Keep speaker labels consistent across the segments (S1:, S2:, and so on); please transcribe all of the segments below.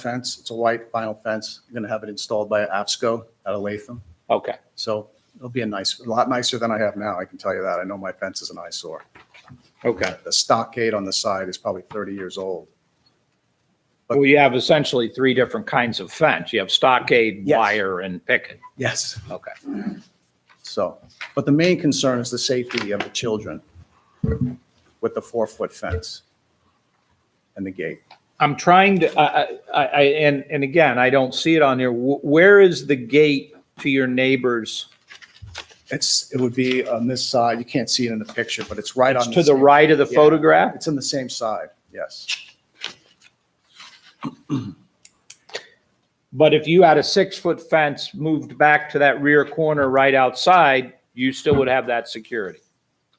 S1: fence. It's a white vinyl fence. I'm going to have it installed by AFSCO out of Latham.
S2: Okay,
S1: So it'll be a nice, a lot nicer than I have now. I can tell you that. I know my fence is an eyesore.
S2: okay.
S1: The stockade on the side is probably 30 years old.
S2: Well, you have essentially three different kinds of fence. You have stockade,
S1: Yes.
S2: wire, and picket.
S1: Yes.
S2: Okay.
S1: So, but the main concern is the safety of the children with the four-foot fence and the gate.
S2: I'm trying to, I, I, I- and, and again, I don't see it on there. Wh- Where is the gate to your neighbors?
S1: It's, it would be on this side. You can't see it in the picture, but it's right on.
S2: To the
S1: same-
S2: right of the
S1: Yeah.
S2: photograph?
S1: It's on the same side, yes.
S2: But if you had a six-foot fence moved back to that rear corner right outside, you still would have that security.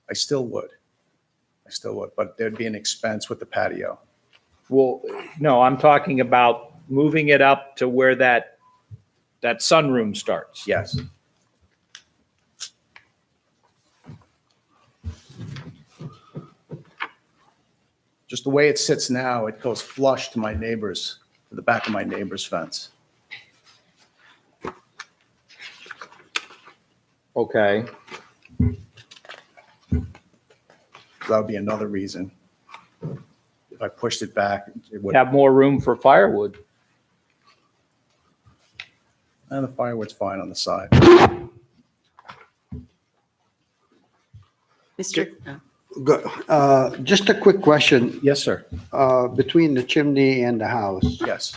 S1: I still would. I still would, but there'd be an expense with the patio.
S2: Well, no, I'm talking about moving it up to where that, that sunroom starts.
S1: Yes. Just the way it sits now, it goes flush to my neighbor's, to the back of my neighbor's fence.
S2: Okay.
S1: That would be another reason. If I pushed it back, it would,
S2: Have more room for firewood.
S1: and the firewood's fine on the side.
S3: Mr. oh,
S4: Good. Uh, Just a quick question.
S1: Yes, sir.
S4: Uh, Between the chimney and the house,
S1: Yes.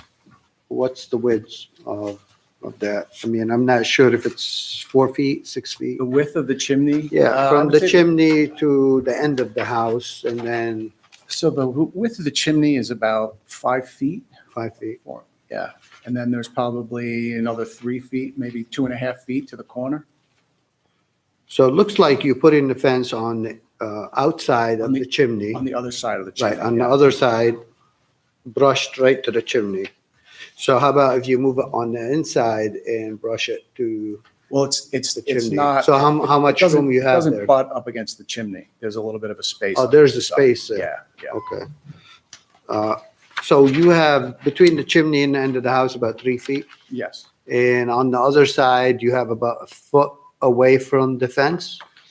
S4: what's the width of, of that? I mean, I'm not sure if it's four feet, six feet.
S1: The width of the chimney?
S4: Yeah,
S1: uh, I
S4: from
S1: would
S4: the
S1: say-
S4: chimney to the end of the house and then
S1: So the width of the chimney is about five feet.
S4: five feet.
S1: Four, yeah. And then there's probably another three feet, maybe two and a half feet to the corner.
S4: So it looks like you put in the fence on, the uh, outside
S1: On
S4: of
S1: the-
S4: the chimney,
S1: On the other side of the chimney.
S4: right, on the
S1: yeah.
S4: other side, brushed right to the chimney. So how about if you move it on the inside and brush it to
S1: Well, it's, it's,
S4: the
S1: it's
S4: chimney?
S1: not,
S4: So how, how much
S1: doesn't,
S4: room you have
S1: doesn't
S4: there?
S1: butt up against the chimney. There's a little bit of a space.
S4: Oh,
S1: on
S4: there's
S1: each
S4: the
S1: side.
S4: space there.
S1: Yeah, yeah.
S4: Okay. Uh, So you have between the chimney and the end of the house about three feet,
S1: Yes,
S4: and on the other side, you have about a foot away from the fence,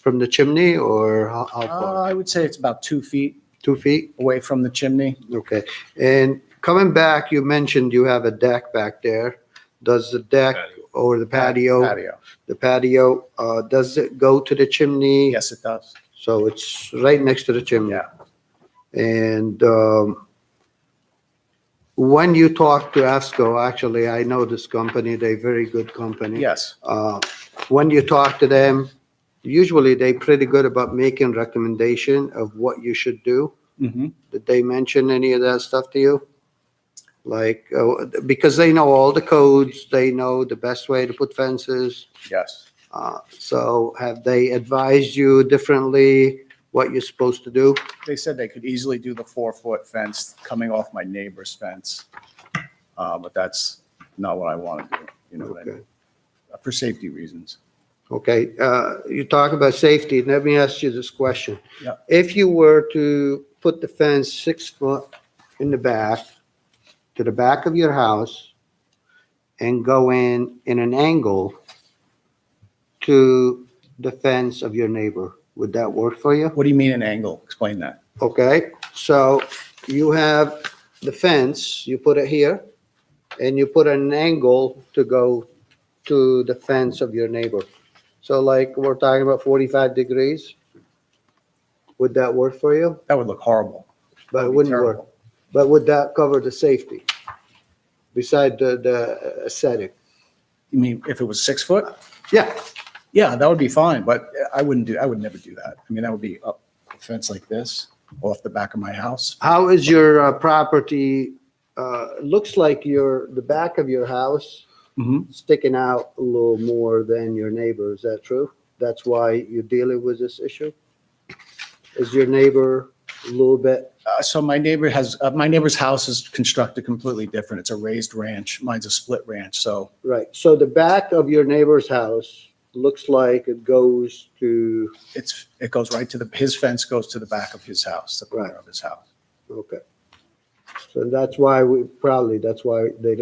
S4: from the chimney, or how how
S1: Uh,
S4: far?
S1: I would say it's about two feet
S4: Two feet?
S1: away from the chimney.
S4: Okay. And coming back, you mentioned you have a deck back there. Does the deck or the patio,
S1: Patio.
S4: the patio, uh, does it go to the chimney?
S1: Yes, it does.
S4: So it's right next to the chimney.
S1: Yeah.
S4: And um, when you talk to ASCO, actually, I know this company, they're very good company.
S1: Yes,
S4: Uh, When you talk to them, usually they pretty good about making recommendation of what you should do.
S1: Mhm.
S4: Did they mention any of that stuff to you? Like, uh, because they know all the codes, they know the best way to put fences.
S1: yes.
S4: Uh, So have they advised you differently, what you're supposed to do?
S1: They said they could easily do the four-foot fence coming off my neighbor's fence. Uh, But that's not what I want to do, you know, what I
S4: Okay.
S1: mean? for safety reasons.
S4: Okay, uh, you talk about safety, let me ask you this question.
S1: Yeah.
S4: If you were to put the fence six foot in the back, to the back of your house, and go in in an angle to the fence of your neighbor, would that work for you?
S1: What do you mean an angle? Explain that.
S4: Okay, so you have the fence, you put it here, and you put an angle to go to the fence of your neighbor. So like, we're talking about 45 degrees. Would that work for you?
S1: That would look horrible.
S4: But
S1: That'd
S4: it
S1: be
S4: wouldn't work.
S1: terrible.
S4: But would that cover the safety? Beside the, the aesthetic?
S1: You mean if it was six foot?
S4: Yeah,
S1: Yeah, that would be fine, but I wouldn't do, I would never do that. I mean, that would be up a fence like this off the back of my house.
S4: how is your uh, property, uh, looks like your, the back of your house
S1: Mhm.
S4: sticking out a little more than your neighbor. Is that true? That's why you're dealing with this issue? Is your neighbor a little bit,
S1: Uh, So my neighbor has, uh, my neighbor's house is constructed completely different. It's a raised ranch. Mine's a split ranch, so
S4: right, so the back of your neighbor's house looks like it goes to,
S1: it's, it goes right to the, his fence goes to the back of his house, the corner
S4: Right.
S1: of his house.
S4: okay. So that's why we, probably, that's why they